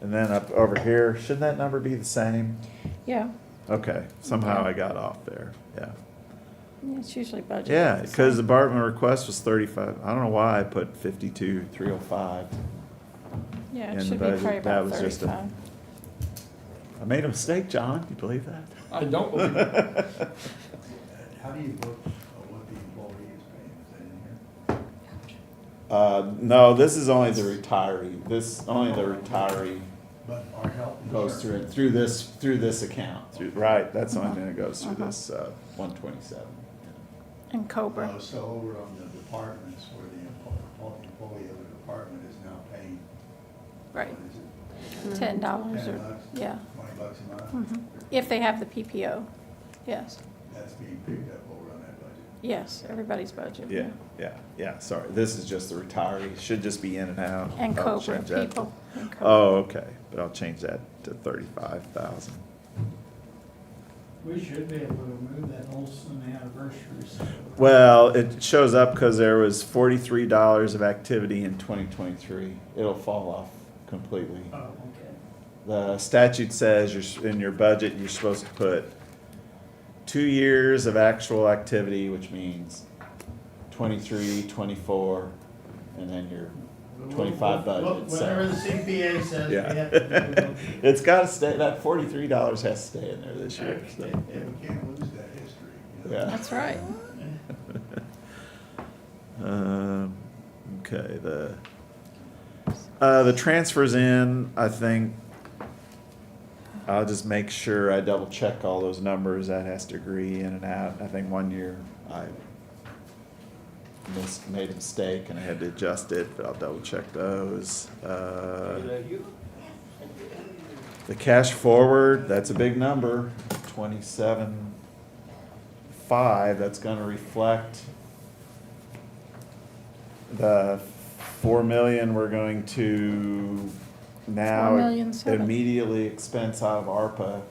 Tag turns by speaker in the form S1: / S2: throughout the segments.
S1: And then up over here, shouldn't that number be the same?
S2: Yeah,
S1: Okay, somehow I got off there, yeah.
S2: yeah, it's usually budgeted.
S1: Yeah,
S2: the
S1: because the
S2: same.
S1: Bartman request was thirty-five, I don't know why I put fifty-two, three oh five.
S2: Yeah,
S1: in
S2: it
S1: the
S2: should be probably
S1: budget, that
S2: about
S1: was just a-
S2: thirty-five.
S1: I made a mistake, John, you believe that?
S3: I don't believe it.
S4: How do you book uh, what the employee is paying? Is that in here?
S1: Uh, no, this is only the retiree, this, only the retiree
S4: But our health
S1: goes Oh,
S4: insurance.
S1: through, it through this, through this account. Through, right, that's the only thing that goes
S2: Uh-huh.
S1: through this, uh, one twenty-seven.
S2: And Cobra,
S4: Uh, So over on the departments where the employee, employee of the department is now paying. what
S2: right,
S4: is it,
S2: ten dollars
S4: Ten
S2: or,
S4: bucks?
S2: yeah.
S4: Twenty bucks a month?
S2: mhm. If they have the PPO, yes,
S4: That's being picked up over on that budget.
S2: yes, everybody's budget.
S1: Yeah, yeah, yeah, sorry, this is just the retiree, should just be in and out.
S2: And
S1: I'll
S2: Cobra,
S1: change that to-
S2: people. and Cobra.
S1: Oh, okay, but I'll change that to thirty-five thousand.
S5: We should be able to remove that Olson anniversary. sale.
S1: Well, it shows up because there was forty-three dollars of activity in twenty twenty-three. It'll fall off completely.
S5: Oh, okay.
S1: The statute says you're, s- in your budget, you're supposed to put two years of actual activity, which means 23, 24, and then your twenty-five budget. so-
S5: Whatever the CPA says we
S1: Yeah.
S5: have to do.
S1: It's gotta stay, that forty-three dollars has to stay in there this year, so,
S4: Yeah, we can't lose that history. you know?
S1: yeah.
S2: That's right.
S1: Um, okay, the, uh, the transfers in, I think, I'll just make sure I double check all those numbers, that has to agree in and out, I think one year I mis- made a mistake and I had to adjust it, but I'll double check those, uh. The cash forward, that's a big number, twenty-seven five, that's gonna reflect the four million we're going to now
S2: Four million seven.
S1: immediately expense out of ARPA.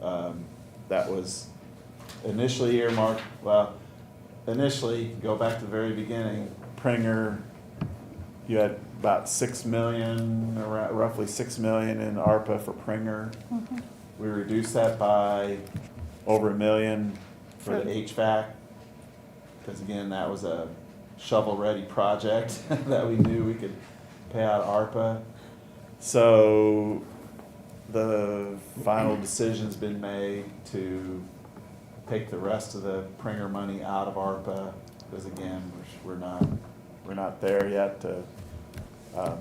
S1: Um, that was initially earmarked, well, initially, go back to the very beginning, Pringer, you had about six million, arou- roughly six million in ARPA for Pringer.
S2: Mhm.
S1: We reduced that by over a million for the
S2: For-
S1: HVAC. Cause again, that was a shovel-ready project that we knew we could pay out ARPA. So the final decision's been made to take the rest of the Pringer money out of ARPA. Cause again, we're, we're not, we're not there yet to, um,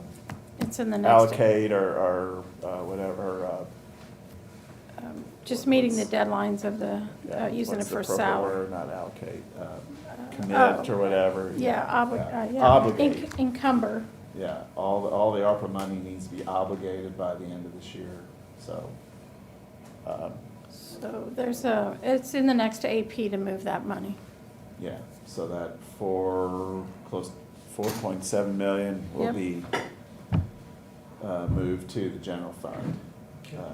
S2: It's in the next.
S1: allocate or, or, uh, whatever, uh,
S2: um, Just meeting the deadlines of the,
S1: Yeah,
S2: uh, using it
S1: what's the
S2: for
S1: proper
S2: salary.
S1: word? Not allocate, uh,
S2: Uh,
S1: commit
S2: oh,
S1: or whatever.
S2: Yeah, obli- uh, yeah.
S1: Obligate,
S2: Enc- Encumber,
S1: yeah, all, the all the ARPA money needs to be obligated by the end of this year, so. um,
S2: so there's a, it's in the next AP to move that money.
S1: Yeah, so that four, close, four point seven million will
S2: Yep.
S1: be uh, moved to the general fund. uh,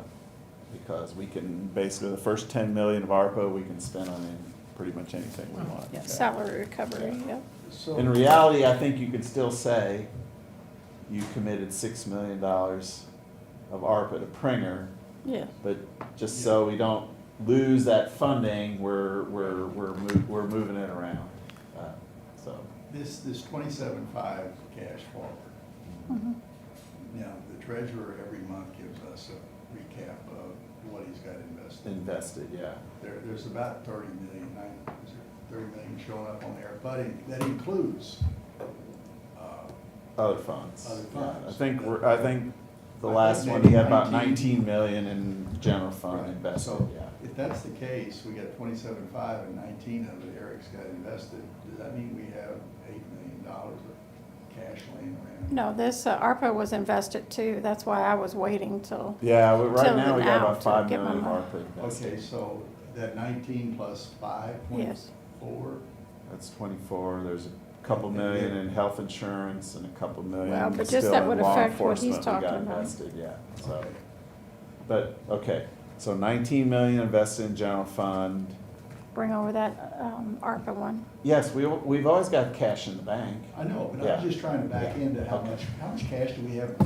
S1: Because we can, basically, the first ten million of ARPA, we can spend on any- pretty much anything we want.
S2: Oh, Yeah, Salary recovery, yep.
S4: So-
S1: In reality, I think you could still say you committed six million dollars of ARPA to Pringer,
S2: Yeah,
S1: but just so we don't lose that funding, we're, we're, we're, mov- we're moving it around. Uh, So,
S4: This, this twenty-seven five cash forward.
S2: mhm.
S4: Now, the treasurer every month gives us a recap of what he's got invested.
S1: invested, yeah.
S4: There, there's about thirty million, I, is there thirty million showing up on there, but it- that includes, uh,
S1: Other funds.
S4: Other
S1: Yeah, I
S4: funds.
S1: think, we're I think the
S4: I think
S1: last one, he had about
S4: maybe
S1: nineteen million in general fund
S4: Right.
S1: invested,
S4: So
S1: yeah.
S4: If that's the case, we got twenty-seven five and nineteen of it Eric's got invested, does that mean we have eight million dollars of cash laying around?
S2: No, this, uh, ARPA was invested too, that's why I was waiting till,
S1: Yeah, we- right
S2: Till
S1: now, we got
S2: now
S1: about
S2: to
S1: five
S2: get my
S1: million of
S2: money.
S1: ARPA invested.
S4: Okay, so that nineteen plus five point
S2: Yes.
S4: four?
S1: That's twenty-four, there's a couple million in health insurance and a couple
S2: Well,
S1: million
S2: but just
S1: still
S2: that
S1: in
S2: would
S1: law
S2: affect what
S1: enforcement
S2: he's
S1: we got
S2: talking about.
S1: invested, yeah, so. But, okay, so nineteen million invested in general fund.
S2: bring over that, um, ARPA one.
S1: Yes, we, we've always got cash in the bank.
S4: I know, but
S1: Yeah.
S4: I'm just trying to back
S1: Yeah.
S4: into how
S1: Okay.
S4: much, how much cash do we have